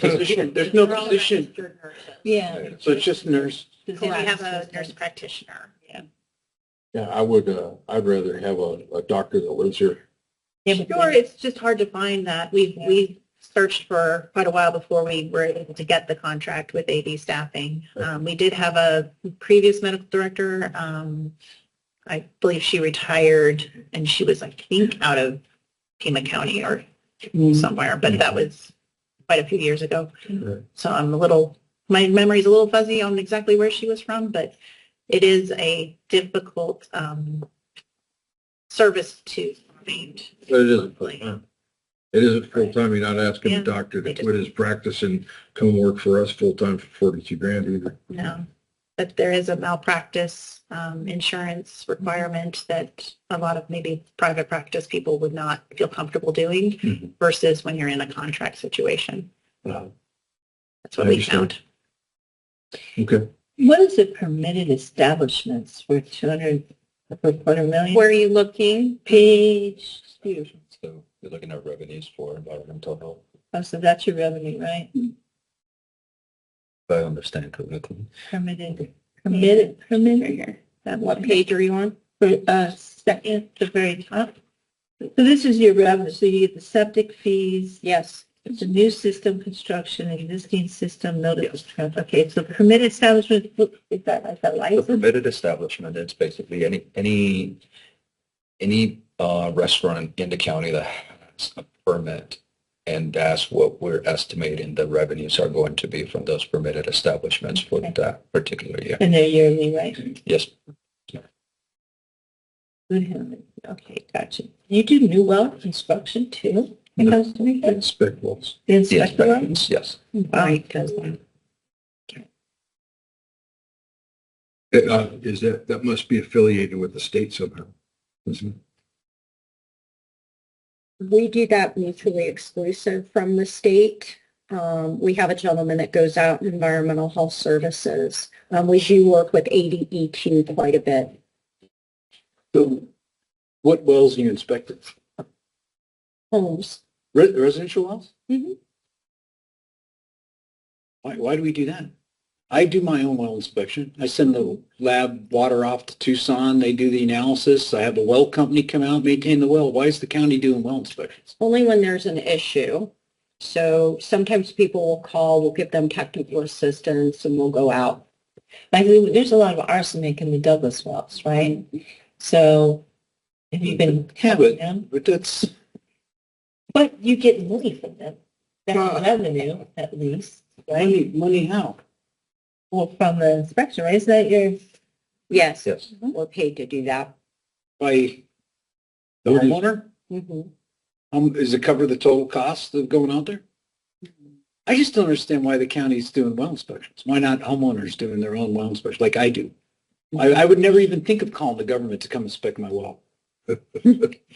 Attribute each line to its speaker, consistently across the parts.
Speaker 1: So Position, there's no position,
Speaker 2: Yeah.
Speaker 1: so it's just nurse.
Speaker 2: Because
Speaker 3: Then we have a nurse practitioner. Yeah.
Speaker 4: Yeah, I would, uh, I'd rather have a, a doctor that lives here.
Speaker 3: Sure, it's just hard to find that. We've,
Speaker 2: Yeah.
Speaker 3: we searched for quite a while before we were able to get the contract with AD staffing. Um, we did have a previous medical director. Um, I believe she retired and she was, I think, out of Pima County or somewhere, but that was quite a few years ago.
Speaker 4: Right.
Speaker 3: So I'm a little, my memory's a little fuzzy on exactly where she was from, but it is a difficult um, service to find.
Speaker 4: But it isn't
Speaker 3: Like,
Speaker 4: full-time. It isn't full-time. You're not asking
Speaker 3: Yeah,
Speaker 4: a doctor
Speaker 3: they
Speaker 4: to
Speaker 3: just-
Speaker 4: quit his practice and come work for us full-time for forty-two grand either.
Speaker 3: No, but there is a malpractice um, insurance requirement that a lot of maybe private practice people would not feel comfortable doing
Speaker 4: Mhm.
Speaker 3: versus when you're in a contract situation.
Speaker 4: Wow.
Speaker 3: That's what
Speaker 4: I
Speaker 3: we
Speaker 4: understand.
Speaker 3: found.
Speaker 4: Okay.
Speaker 2: What is the permitted establishments for two hundred, for quarter million?
Speaker 3: Where are you looking?
Speaker 2: Page,
Speaker 4: So you're looking at revenues for environmental health,
Speaker 2: oh, so that's your revenue, right?
Speaker 4: if I understand correctly.
Speaker 2: Permitted, permitted, permitted,
Speaker 3: Here.
Speaker 2: that
Speaker 3: What
Speaker 2: one,
Speaker 3: page are you on?
Speaker 2: for, uh, second, the very top. So this is your revenue, so you get the septic fees,
Speaker 3: Yes.
Speaker 2: It's a new system construction, existing system notice, okay, so permitted establishment, is that, is that
Speaker 5: The
Speaker 2: license?
Speaker 5: permitted establishment, it's basically any, any, any uh, restaurant in the county that has a permit. And that's what we're estimating the revenues are going to be from those permitted establishments for
Speaker 2: Okay.
Speaker 5: that particular year.
Speaker 2: And they're yearly, right?
Speaker 5: Yes,
Speaker 2: Good heaven. Okay, gotcha. You do new well construction too? It
Speaker 4: No.
Speaker 2: comes to me, the
Speaker 4: Spec wells.
Speaker 5: the
Speaker 2: inspector well?
Speaker 5: inspections, yes.
Speaker 2: Wow.
Speaker 4: Uh, is that, that must be affiliated with the state somehow. isn't it?
Speaker 6: we do that mutually exclusive from the state. Um, we have a gentleman that goes out in environmental health services. Um, we do work with ADEQ quite a bit.
Speaker 1: So what wells do you inspect?
Speaker 6: Homes,
Speaker 1: Re- Residential wells?
Speaker 6: Mhm.
Speaker 1: Why, why do we do that? I do my own well inspection. I send the lab water off to Tucson. They do the analysis. I have the well company come out, maintain the well. Why is the county doing well inspections?
Speaker 6: only when there's an issue. So sometimes people will call, we'll give them technical assistance and we'll go out.
Speaker 2: Like, we- there's a lot of arsenic in the Douglas wells, right? So have you been
Speaker 1: Yeah,
Speaker 2: having them?
Speaker 1: But that's,
Speaker 2: But you get money from them.
Speaker 1: Uh,
Speaker 2: That's revenue at least, right?
Speaker 1: money, money how?
Speaker 2: Well, from the inspection, right? Isn't that your,
Speaker 6: Yes,
Speaker 5: Yes.
Speaker 6: we're paid to do that.
Speaker 1: By the
Speaker 4: Where do you-
Speaker 1: homeowner?
Speaker 3: Mm-hmm.
Speaker 6: Mhm.
Speaker 1: Um, is it cover the total cost of going out there? I just don't understand why the county's doing well inspections. Why not homeowners doing their own well inspection like I do? I, I would never even think of calling the government to come inspect my well.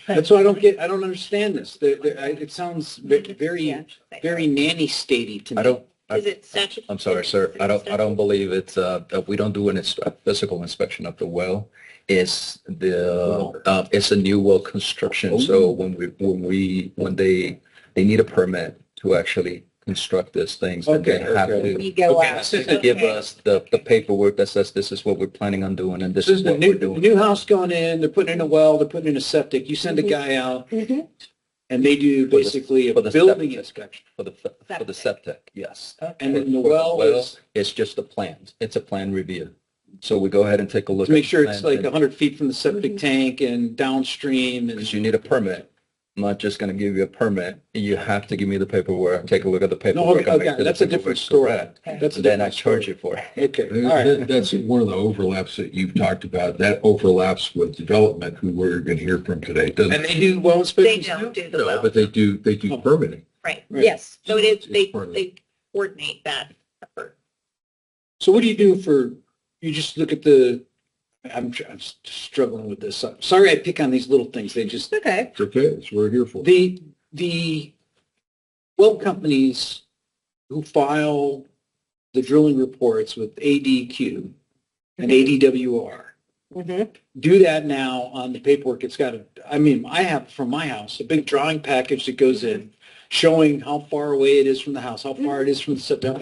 Speaker 1: That's why I don't get, I don't understand this. The, the, I, it sounds ve- very, very nanny statey to me.
Speaker 5: I don't,
Speaker 3: Is it statutory?
Speaker 5: I'm sorry, sir, I don't, I don't believe it's, uh, that we don't do an ins- a physical inspection of the well. It's the, uh, it's a new well construction, so
Speaker 1: Oh.
Speaker 5: when we, when we, when they, they need a permit to actually construct these things, and they
Speaker 1: Okay,
Speaker 5: have
Speaker 1: okay.
Speaker 5: to
Speaker 6: We go
Speaker 1: Okay,
Speaker 6: out.
Speaker 1: this is
Speaker 5: to give
Speaker 3: Okay.
Speaker 5: us the, the paperwork that says this is what we're planning on doing and this
Speaker 1: This is
Speaker 5: is
Speaker 1: the
Speaker 5: what we're
Speaker 1: new, the
Speaker 5: doing.
Speaker 1: new house going in, they're putting in a well, they're putting in a septic. You send a
Speaker 6: Mhm.
Speaker 1: guy out
Speaker 2: Mm-hmm.
Speaker 6: Mhm.
Speaker 1: and they do
Speaker 5: Mm-hmm. For the-
Speaker 1: basically a
Speaker 5: for the
Speaker 1: building
Speaker 5: septic.
Speaker 1: inspection.
Speaker 5: For the, for the septic, yes.
Speaker 1: And then the
Speaker 5: For- for
Speaker 1: well is
Speaker 5: It's just a plan, it's a plan review. So we go ahead and take a look.
Speaker 1: to make
Speaker 5: at the
Speaker 1: sure it's
Speaker 5: plans
Speaker 1: like
Speaker 5: and-
Speaker 1: hundred feet from the
Speaker 5: Mm-hmm.
Speaker 1: septic tank and downstream and.
Speaker 5: Because you need a permit. I'm not just going to give you a permit. You have to give me the paperwork, take a look at the
Speaker 1: No,
Speaker 5: paperwork.
Speaker 1: okay,
Speaker 5: and make
Speaker 1: okay,
Speaker 5: sure the
Speaker 1: that's a different
Speaker 5: paperwork's
Speaker 1: story.
Speaker 5: correct.
Speaker 1: That's a
Speaker 5: Then I
Speaker 1: different
Speaker 5: charge
Speaker 1: story.
Speaker 5: you for it.
Speaker 1: Okay, all
Speaker 4: That-
Speaker 1: right.
Speaker 4: That's one of the overlaps that you've talked about. That overlaps with development, who we're going to hear from today. It doesn't
Speaker 1: And they do well
Speaker 3: They
Speaker 1: inspections
Speaker 3: don't
Speaker 1: too?
Speaker 3: do the
Speaker 4: No,
Speaker 3: well.
Speaker 4: but they do, they do permitting.
Speaker 3: Right.
Speaker 1: Right.
Speaker 6: Yes.
Speaker 3: So it is, they,
Speaker 4: It's part of it.
Speaker 3: they coordinate that effort.
Speaker 1: So what do you do for, you just look at the, I'm, tr- I'm s- struggling with this. So- Sorry I pick on these little things. They just,
Speaker 6: Okay.
Speaker 4: It's okay, it's what we're here for.
Speaker 1: the, the well companies who file the drilling reports with ADQ and ADWR,
Speaker 3: Mm-hmm.
Speaker 6: Mhm.
Speaker 1: do that now on the paperwork. It's got a, I mean, I have from my house, a big drawing package that goes in. showing how far away it is from the house, how far it is from the setback,